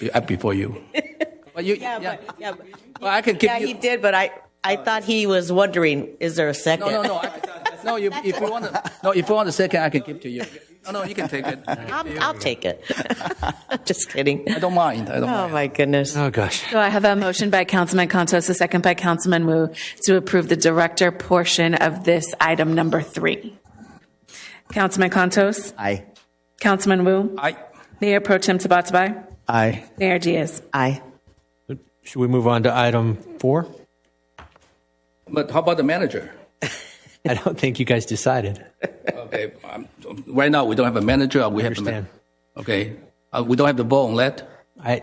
be- up before you. But you, Yeah, yeah, but, yeah, but- Well, I could give yeah, he you, Uh, did, but I, I thought he was wondering, is there a second? no, no, no, I- no, you- if you want, to, no, if you want a second, I can give to you. No, no, you can take it. I I'll, I'll take it. Just kidding. don't mind, I don't Oh, mind. my goodness. Oh, gosh. So I have a motion by Councilman Contos, a second by Councilman Wu, to approve the director portion of this item number three. Councilman Contos, Aye. Councilman Wu, I, Mayor Pro Tem Tabatabai, Aye. Mayor Diaz. Aye. Should we move on to item four? but how about the manager? I don't think you guys decided. Okay, um, right now, we don't have a manager, or we have a Understand. man. Okay, uh, we don't have the vote on that. I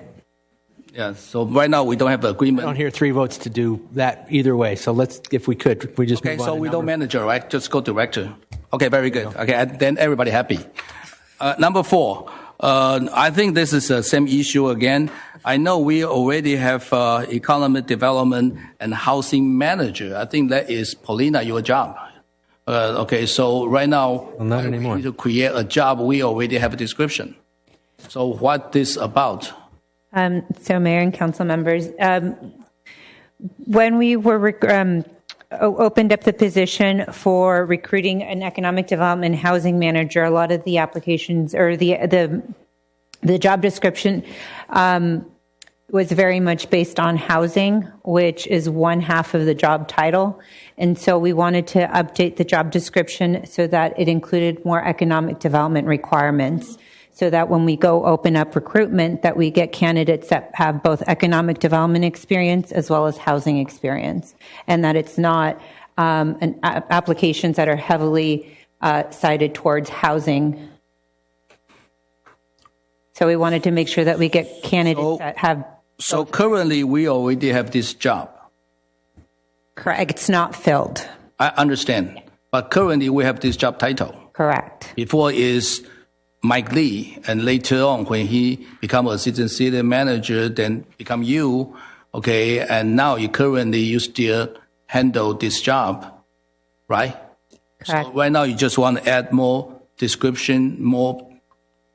Yeah, so right now, we don't have agreement. don't hear three votes to do that either way, so let's, if we could, if we just Okay, move on. so to we don't number- manager, right? Just go director. Okay, very good. Okay, and then everybody happy. Uh, number four, uh, I think this is the same issue again. I know we already have uh, economic development and housing manager. I think that is Paulina your job. Uh, okay, so right now not uh, we anymore. need to create a job. We already have a description. So what this about? Um, so, Mayor and council members, um, when we were rec- um, o- opened up the position for recruiting an economic development housing manager, a lot of the applications or the the the job description um, was very much based on housing, which is one half of the job title. And so we wanted to update the job description so that it included more economic development requirements. So that when we go open up recruitment, that we get candidates that have both economic development experience as well as housing experience. And that it's not, um, an, a- applications that are heavily, uh, cited towards housing. So we wanted to make sure that we get So- candidates that have So currently we already have this job. Correct. It's not filled. I understand, but currently we have this job title. Correct. Before is Mike Lee, and later on when he become assistant city manager, then become you, okay? And now you currently you still handle this job, right? Correct. Right now you just want to add more description, more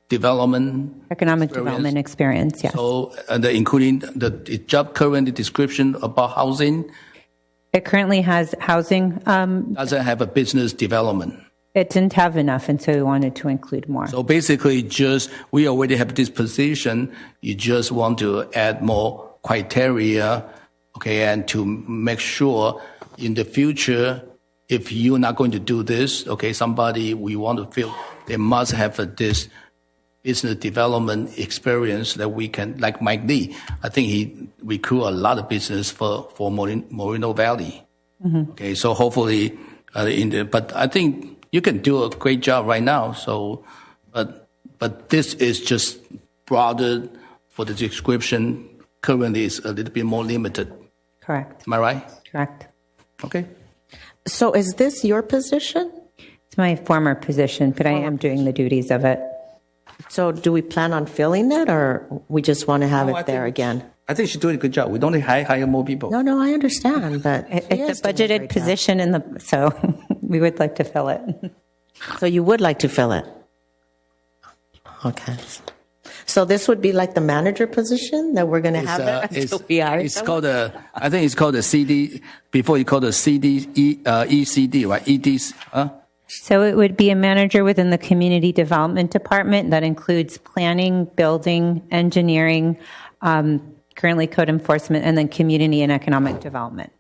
development, Economic development experience. Yes. so and the, including the, the job currently description about housing it currently has housing. Um, doesn't have a business development. it didn't have enough, and so we wanted to include more. So basically, just we already have this position. You just want to add more criteria, okay, and to make sure in the future, if you're not going to do this, okay, somebody we want to fill, they must have a, this business development experience that we can, like Mike Lee. I think he recruit a lot of business for for Morin- Moreno Valley. Okay, so hopefully, uh, in the, but I think you can do a great job right now. So, but but this is just broader for the description. Currently, is a little bit more limited. correct. Am I right? Correct. Okay. So is this your position? It's my former position, but I am doing the duties of it. So do we plan on filling it, or we just want to have I it there think- again? I think she's doing a good job. We don't need to hire, hire more people. No, no, I understand, but It- she is doing great It's a budgeted job. position in the so we would like to fill it. So you would like to fill it? Okay. So this would be like the manager position that we're going to have uh, it until we hire it's someone? called a, I think it's called a CD, before you called a CD, E- uh, ECD, right? EDC, huh? So it would be a manager within the community development department that includes planning, building, engineering, um, currently code enforcement, and then community and economic development.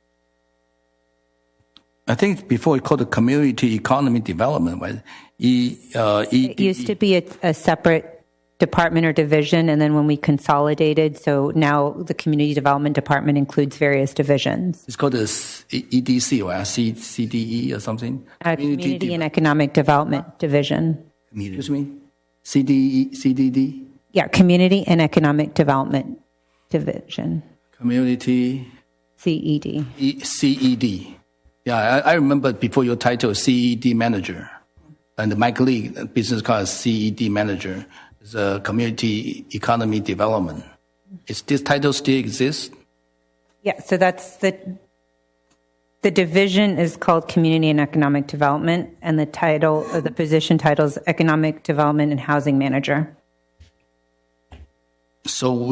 I think before it called the community economy development, right? E, uh, E. It used to be a, a separate department or division, and then when we consolidated, so now the community development department includes various divisions. It's called the S- E- EDC, right? C, CDE or something? Uh, Community community and Deve- economic development division. Excuse me? CDE, CDD? Yeah, community and economic development division, Community CED. E- CED. Yeah, I, I remember before your title, CED manager. And Mike Lee, uh, business called CED manager, is a community economy development. Is this title still exists? Yeah, so that's the, the division is called Community and Economic Development, and the title, uh, the position title is Economic Development and Housing Manager. So